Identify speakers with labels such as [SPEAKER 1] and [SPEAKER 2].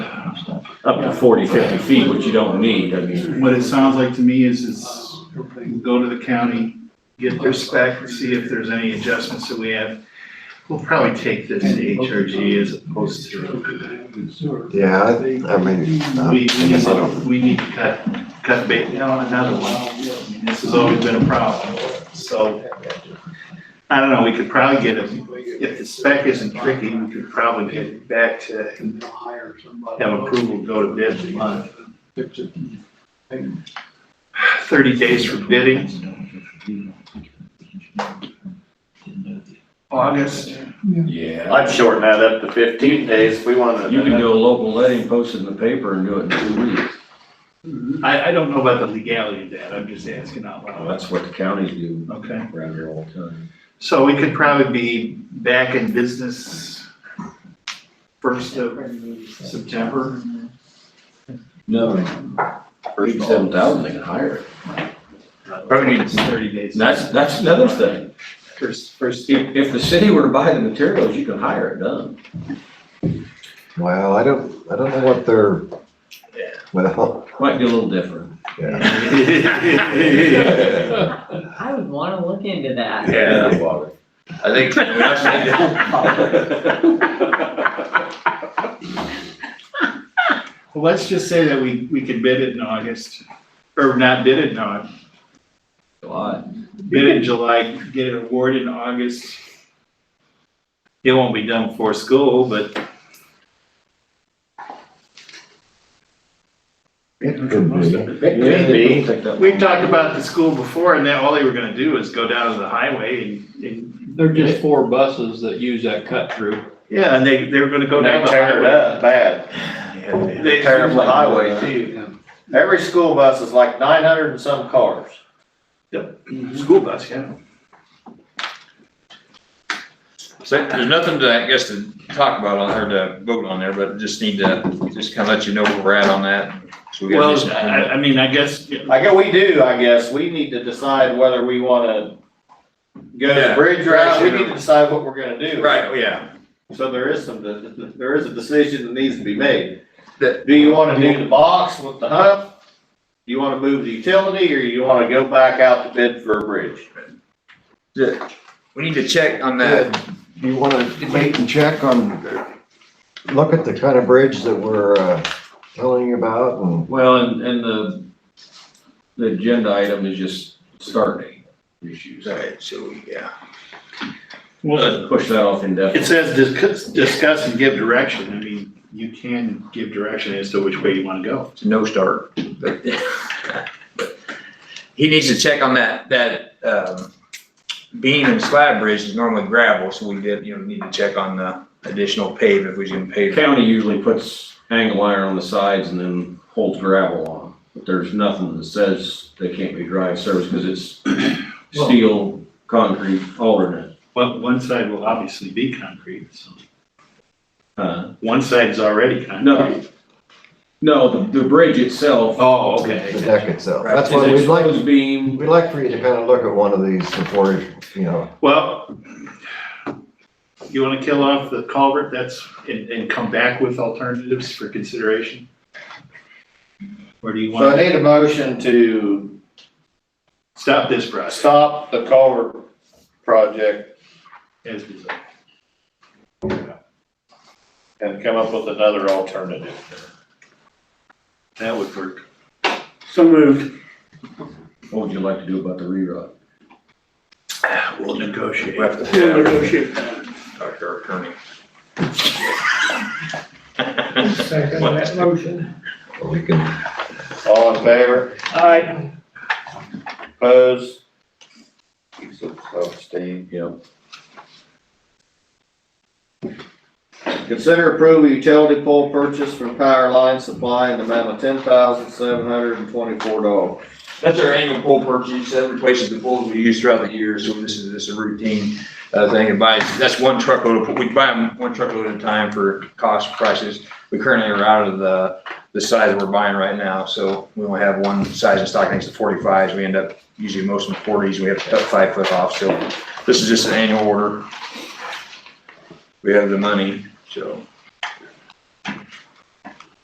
[SPEAKER 1] up to 40, 50 feet, which you don't need, I mean.
[SPEAKER 2] What it sounds like to me is, is go to the county, get their spec, see if there's any adjustments that we have. We'll probably take this to HRG as opposed to,
[SPEAKER 3] Yeah, I I mean, uh,
[SPEAKER 2] we,
[SPEAKER 3] I
[SPEAKER 2] we need
[SPEAKER 3] guess I don't.
[SPEAKER 2] to, we need to cut, cut bait down another one. I mean, This has always been a problem, so. I don't know, we could probably get, a- if the spec isn't tricky, we could probably get it back to have approval, to go to bid in a month. Thirty days for bidding, August.
[SPEAKER 1] Yeah.
[SPEAKER 4] I'd shorten that up to fifteen days if we wanted.
[SPEAKER 1] You can do a local letting, post it in the paper and do it in two weeks.
[SPEAKER 2] I, I don't know about the legality of that, I'm just asking out
[SPEAKER 1] Well,
[SPEAKER 2] loud.
[SPEAKER 1] Oh, That's what the counties do
[SPEAKER 2] Okay,
[SPEAKER 1] around here all the time.
[SPEAKER 2] so we could probably be back in business first of September.
[SPEAKER 1] No. Eighty-seven thousand, they can hire it.
[SPEAKER 2] Probably needs thirty days.
[SPEAKER 1] And that's, that's another thing.
[SPEAKER 2] First, first.
[SPEAKER 1] If, if the city were to buy the materials, you can hire it done.
[SPEAKER 3] Well, I don't, I don't know what they're, well,
[SPEAKER 1] Might be a little different.
[SPEAKER 3] yeah.
[SPEAKER 2] Yeah.
[SPEAKER 5] I would wanna look into that.
[SPEAKER 4] Yeah, I think. we actually did.
[SPEAKER 2] Well, let's just say that we, we could bid it in August, or not bid it in August.
[SPEAKER 1] July.
[SPEAKER 2] bid in July, get it awarded in August. It won't be done before school, but.
[SPEAKER 3] It could be.
[SPEAKER 4] Maybe.
[SPEAKER 1] I think that-
[SPEAKER 2] We've talked about the school before and that all they were gonna do is go down to the highway and, and,
[SPEAKER 6] They're just four buses that use that cut through.
[SPEAKER 2] yeah, and they, they were gonna go down
[SPEAKER 4] They
[SPEAKER 2] the
[SPEAKER 4] tear it
[SPEAKER 2] highway.
[SPEAKER 4] up bad.
[SPEAKER 2] They-
[SPEAKER 4] They tear up the highway too. Every school bus is like nine hundred and some cars.
[SPEAKER 2] School bus, yeah.
[SPEAKER 7] So there's nothing to, I guess, to talk about on, or to vote on there, but just need to, just kind of let you know where we're at on that. So we gotta do
[SPEAKER 2] Well,
[SPEAKER 7] something.
[SPEAKER 2] I, I mean, I guess,
[SPEAKER 4] I guess we do, I guess. We need to decide whether we wanna go the
[SPEAKER 7] Yeah.
[SPEAKER 4] bridge route. We need to decide what we're gonna do.
[SPEAKER 7] Right, oh, yeah.
[SPEAKER 4] So there is some, there is a decision that needs to be made.
[SPEAKER 7] That-
[SPEAKER 4] Do you wanna do the box with the hump? Do you wanna move the utility, or you wanna go back out to bid for a bridge?
[SPEAKER 7] We need to check on that.
[SPEAKER 3] You wanna wait and check on, look at the kind of bridge that we're, uh, telling you about and,
[SPEAKER 1] Well, and, and the, the agenda item is just start date issues.
[SPEAKER 7] Right, so, yeah.
[SPEAKER 2] well,
[SPEAKER 1] Push that off
[SPEAKER 2] it
[SPEAKER 1] indefinitely.
[SPEAKER 2] says discuss, discuss and give direction. I mean, you can give direction as to which way you wanna go.
[SPEAKER 7] It's a no start. But He needs to check on that, that, um, beam and slab bridge is normally gravel, so we did, you know, need to check on the additional pave if we can
[SPEAKER 1] The
[SPEAKER 7] pave.
[SPEAKER 1] county usually puts angle iron on the sides and then holds gravel on them. But there's nothing that says they can't be drive service because it's steel, concrete, alternate.
[SPEAKER 2] But one side will obviously be concrete, so.
[SPEAKER 1] Uh,
[SPEAKER 2] One side's already concrete.
[SPEAKER 1] No. No, the, the bridge itself.
[SPEAKER 2] Oh,
[SPEAKER 3] the
[SPEAKER 2] okay.
[SPEAKER 3] deck itself. That's
[SPEAKER 1] is
[SPEAKER 3] why we'd like,
[SPEAKER 1] exposed beam.
[SPEAKER 3] we'd like for you to kind of look at one of these before, you know,
[SPEAKER 2] Well, you wanna kill off the culvert, that's, and, and come back with alternatives for consideration? Or do you
[SPEAKER 4] So I
[SPEAKER 2] wanna
[SPEAKER 4] need a motion to
[SPEAKER 2] stop this process
[SPEAKER 4] stop the culvert project
[SPEAKER 2] as designed?
[SPEAKER 4] and come up with another alternative.
[SPEAKER 2] That would work.
[SPEAKER 4] So moved.
[SPEAKER 1] What would you like to do about the rerod?
[SPEAKER 2] We'll negotiate.
[SPEAKER 7] We have to- Talk to our attorney.
[SPEAKER 8] Second that motion.
[SPEAKER 3] we can
[SPEAKER 4] All in favor?
[SPEAKER 8] Aye.
[SPEAKER 4] Opposed? So abstained.
[SPEAKER 1] Yeah.
[SPEAKER 4] Consider approving utility pole purchase from Power Line Supply in the amount of ten thousand seven hundred and twenty-four dollars.
[SPEAKER 7] That's our annual pole purchase, that replaces the poles we use throughout the year, so this is, this is a routine, uh, thing, and buy, that's one truckload, of- we buy them one truckload at a time for cost prices. We currently are out of the, the size that we're buying right now, so we only have one size in stock, I think it's the forty-fives, we end up usually most in the forties, we have to cut five foot off, so this is just an annual order. We have the money, so.